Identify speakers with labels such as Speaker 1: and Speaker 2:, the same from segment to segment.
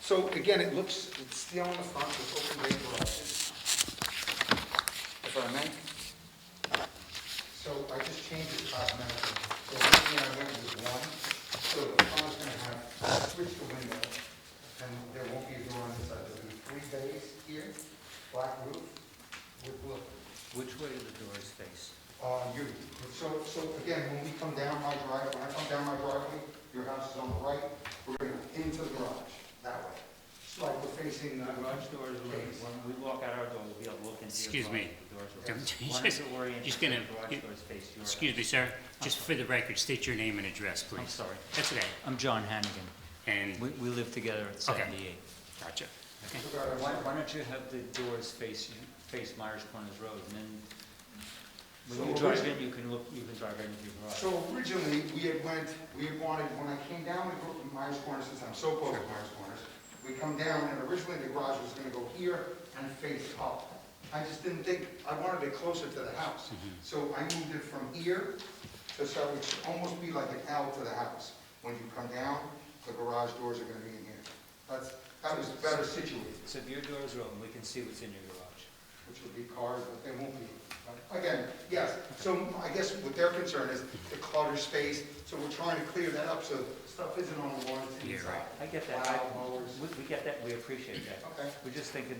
Speaker 1: So again, it looks, it's still on the front, it's open bay garages. If I may? So I just changed it cosmetically. So originally I went with one, so the front is gonna have, switch the window, and there won't be a door on this side. There'll be three bays here, black roof with blue.
Speaker 2: Which way are the doors faced?
Speaker 1: Uh, you, so, so again, when we come down my drive, when I come down my driveway, your house is on the right, we're gonna into the garage, that way. It's like we're facing the garage.
Speaker 2: Garage doors are,
Speaker 1: Please.
Speaker 2: when we walk out our door, we'll be able to look into your.
Speaker 3: Excuse
Speaker 2: garage.
Speaker 3: me.
Speaker 2: The doors
Speaker 3: Don't-
Speaker 2: are- One is oriented,
Speaker 3: just
Speaker 2: the
Speaker 3: gonna-
Speaker 2: garage doors face your.
Speaker 3: Excuse me, sir, just for the record, state your name and address,
Speaker 2: I'm
Speaker 3: please.
Speaker 2: sorry.
Speaker 3: That's okay,
Speaker 4: I'm John Hannigan.
Speaker 3: and,
Speaker 4: We, we live together at
Speaker 3: Okay.
Speaker 4: 78.
Speaker 3: gotcha. Okay.
Speaker 1: So that I
Speaker 4: Why,
Speaker 1: want-
Speaker 4: why don't you have the doors face, you- face Myers Corners Road, and then
Speaker 1: So
Speaker 4: when you drive
Speaker 1: originally-
Speaker 4: in, you can look, you can drive right into your garage.
Speaker 1: So originally, we had went, we had wanted, when I came down to Gro- Myers Corners, since I'm so close to Myers Corners, we come down, and originally the garage was gonna go here and face up. I just didn't think, I wanted it closer to the house. So I moved it from here to, so it should almost be like an L to the house. When you come down, the garage doors are gonna be in here. That's, that was better situated,
Speaker 4: So if your door is open, we can see what's in your garage.
Speaker 1: which would be cars, but they won't be. But Again, yes, so I guess what their concern is the cluttered space, so we're trying to clear that up, so stuff isn't on the lawn, it's
Speaker 3: Yeah,
Speaker 1: inside.
Speaker 3: right.
Speaker 4: I get that, I,
Speaker 1: Plow, mowers.
Speaker 4: we, we get that, we appreciate that.
Speaker 1: Okay,
Speaker 4: We're just thinking,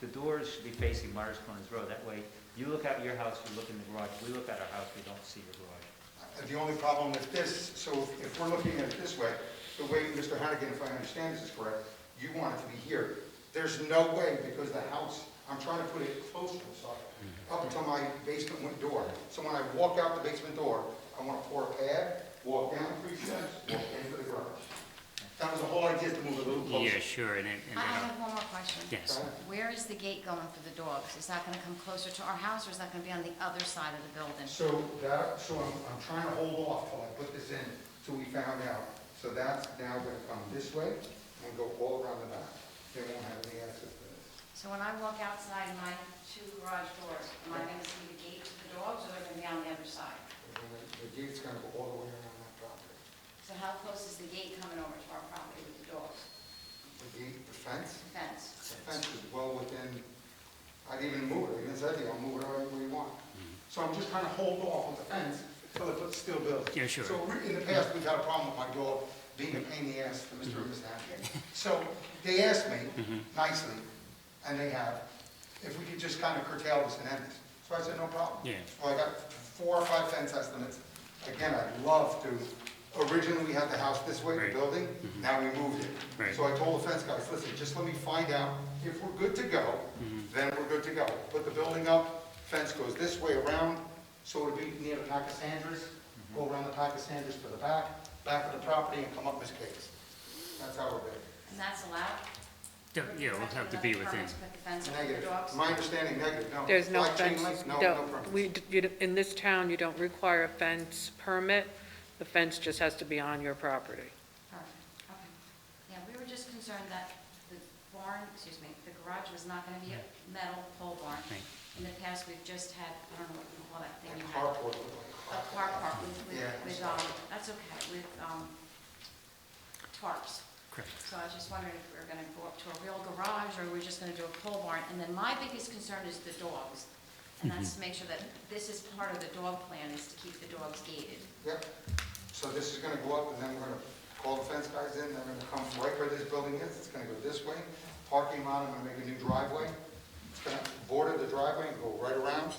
Speaker 4: the doors should be facing Myers Corners Road, that way, you look out your house, you look in the garage, we look at our house, we don't see your garage.
Speaker 1: Uh, the only problem with this, so if- if we're looking at it this way, the way Mr. Hannigan, if I understand this is correct, you want it to be here. There's no way, because the house, I'm trying to put it closer, sorry, up to my basement win- door. So when I walk out the basement door, I want to pour a pad, walk down three steps, walk into the garage. That was the whole idea, is to move it a little closer.
Speaker 3: Yeah, sure, and then, and
Speaker 5: I I
Speaker 3: then,
Speaker 5: have one more question.
Speaker 3: yes,
Speaker 5: Where is the gate going for the dogs? Is that going to come closer to our house, or is that going to be on the other side of the building?
Speaker 1: So that, so I'm, I'm trying to hold off till I put this in, till we found out. So that's now gonna come this way and go all around the back. They won't have any access to this.
Speaker 5: So when I walk outside my two garage doors, am I going to see the gate to the dogs, or they're going to be on the other side?
Speaker 1: And then The gate's gonna go all the way around that property.
Speaker 5: So how close is the gate coming over to our property with the dogs?
Speaker 1: The gate, the fence,
Speaker 5: The fence?
Speaker 1: the fence is well within, I'd even move it, I even said to you, I'll move it however you want. So I'm just trying to hold off on the fence till it looks still built.
Speaker 3: Yeah, sure.
Speaker 1: So re- in the past, we got a problem with my dog being a pain in the ass to Mr.
Speaker 3: Mm-hmm.
Speaker 1: and Mrs. Hannigan. So they asked me nicely, and they have, if we could just kind of curtail this and end this. So I said, no problem.
Speaker 3: Yeah.
Speaker 1: Well, I got four or five fence estimates. Again, I'd love to, originally we had the house this way, the
Speaker 3: Right. Mm-hmm.
Speaker 1: building, now we moved it.
Speaker 3: Right.
Speaker 1: So I told the fence guys, listen, just let me find out if we're good to go,
Speaker 3: Mm-hmm.
Speaker 1: then we're good to go. Put the building up, fence goes this way around, so it'll be near the Pack of Sanders,
Speaker 3: Mm-hmm.
Speaker 1: go around the Pack of Sanders to the back, back of the property and come up Miss Case. That's how we're doing.
Speaker 5: And that's allowed?
Speaker 3: Don't- yeah, we'll have to be within,
Speaker 5: Permits put the fence over the
Speaker 1: Negative,
Speaker 5: dogs?
Speaker 1: my understanding, negative, no.
Speaker 6: There's no
Speaker 1: Black chain
Speaker 6: fence,
Speaker 1: link, No, no
Speaker 6: don't-
Speaker 1: permits.
Speaker 6: we d- you d- in this town, you don't require a fence permit. The fence just has to be on your property.
Speaker 5: Perfect, okay. Yeah, we were just concerned that the barn, excuse me, the garage was not gonna be a metal pole barn.
Speaker 3: Right.
Speaker 5: In the past, we've just had, I don't know what you call that thing
Speaker 1: Like
Speaker 5: you had.
Speaker 1: carport.
Speaker 5: A car park with, with,
Speaker 1: Yeah.
Speaker 5: with, um, that's okay, with, um, tarps.
Speaker 3: correct.
Speaker 5: So I was just wondering if we were gonna go up to a real garage, or we're just gonna do a pole barn? And then my biggest concern is the dogs. And that's to make sure that this is part of the dog plan, is to keep the dogs gated.
Speaker 1: Yep. So this is gonna go up, and then we're gonna call the fence guys in, they're gonna come right where this building is, it's gonna go this way, parking lot, I'm gonna make a new driveway. It's gonna border the driveway and go right around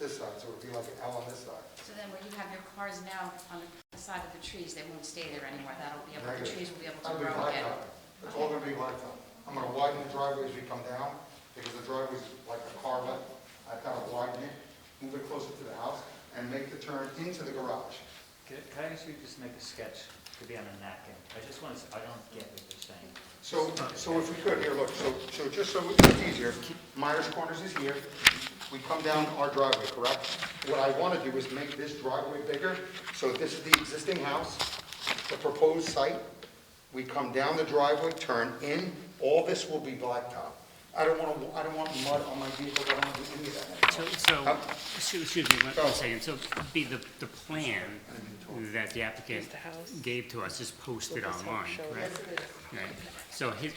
Speaker 1: this side, so it'll be like an L on this side.
Speaker 5: So then where you have your cars now on the side of the trees, they won't stay there anymore. That'll be able, the trees will be able
Speaker 1: That'll
Speaker 5: to
Speaker 1: be
Speaker 5: grow again.
Speaker 1: blacktop. It's all gonna be blacktop. I'm gonna widen the driveway as we come down, because the driveway's like a car lot. I've gotta widen it, move it closer to the house, and make the turn into the garage.
Speaker 4: Can can I ask you to just make a sketch, could be on a napkin? I just want to, I don't get what you're saying.
Speaker 1: So, so if we could, here, look, so, so just so it's easier, Myers Corners is here, we come down our driveway, correct? What I want to do is make this driveway bigger, so this is the existing house, the proposed site, we come down the driveway, turn in, all this will be blacktop. I don't want to, I don't want mud on my vehicle, I don't want to do any of that.
Speaker 3: So, so,
Speaker 1: Huh?
Speaker 3: so, excuse me, one-
Speaker 1: Go.
Speaker 3: one second, so be the, the plan that the applicant
Speaker 6: Here's the house.
Speaker 3: gave to us is posted
Speaker 6: This helps
Speaker 3: online,
Speaker 6: show
Speaker 3: right? Right. So his,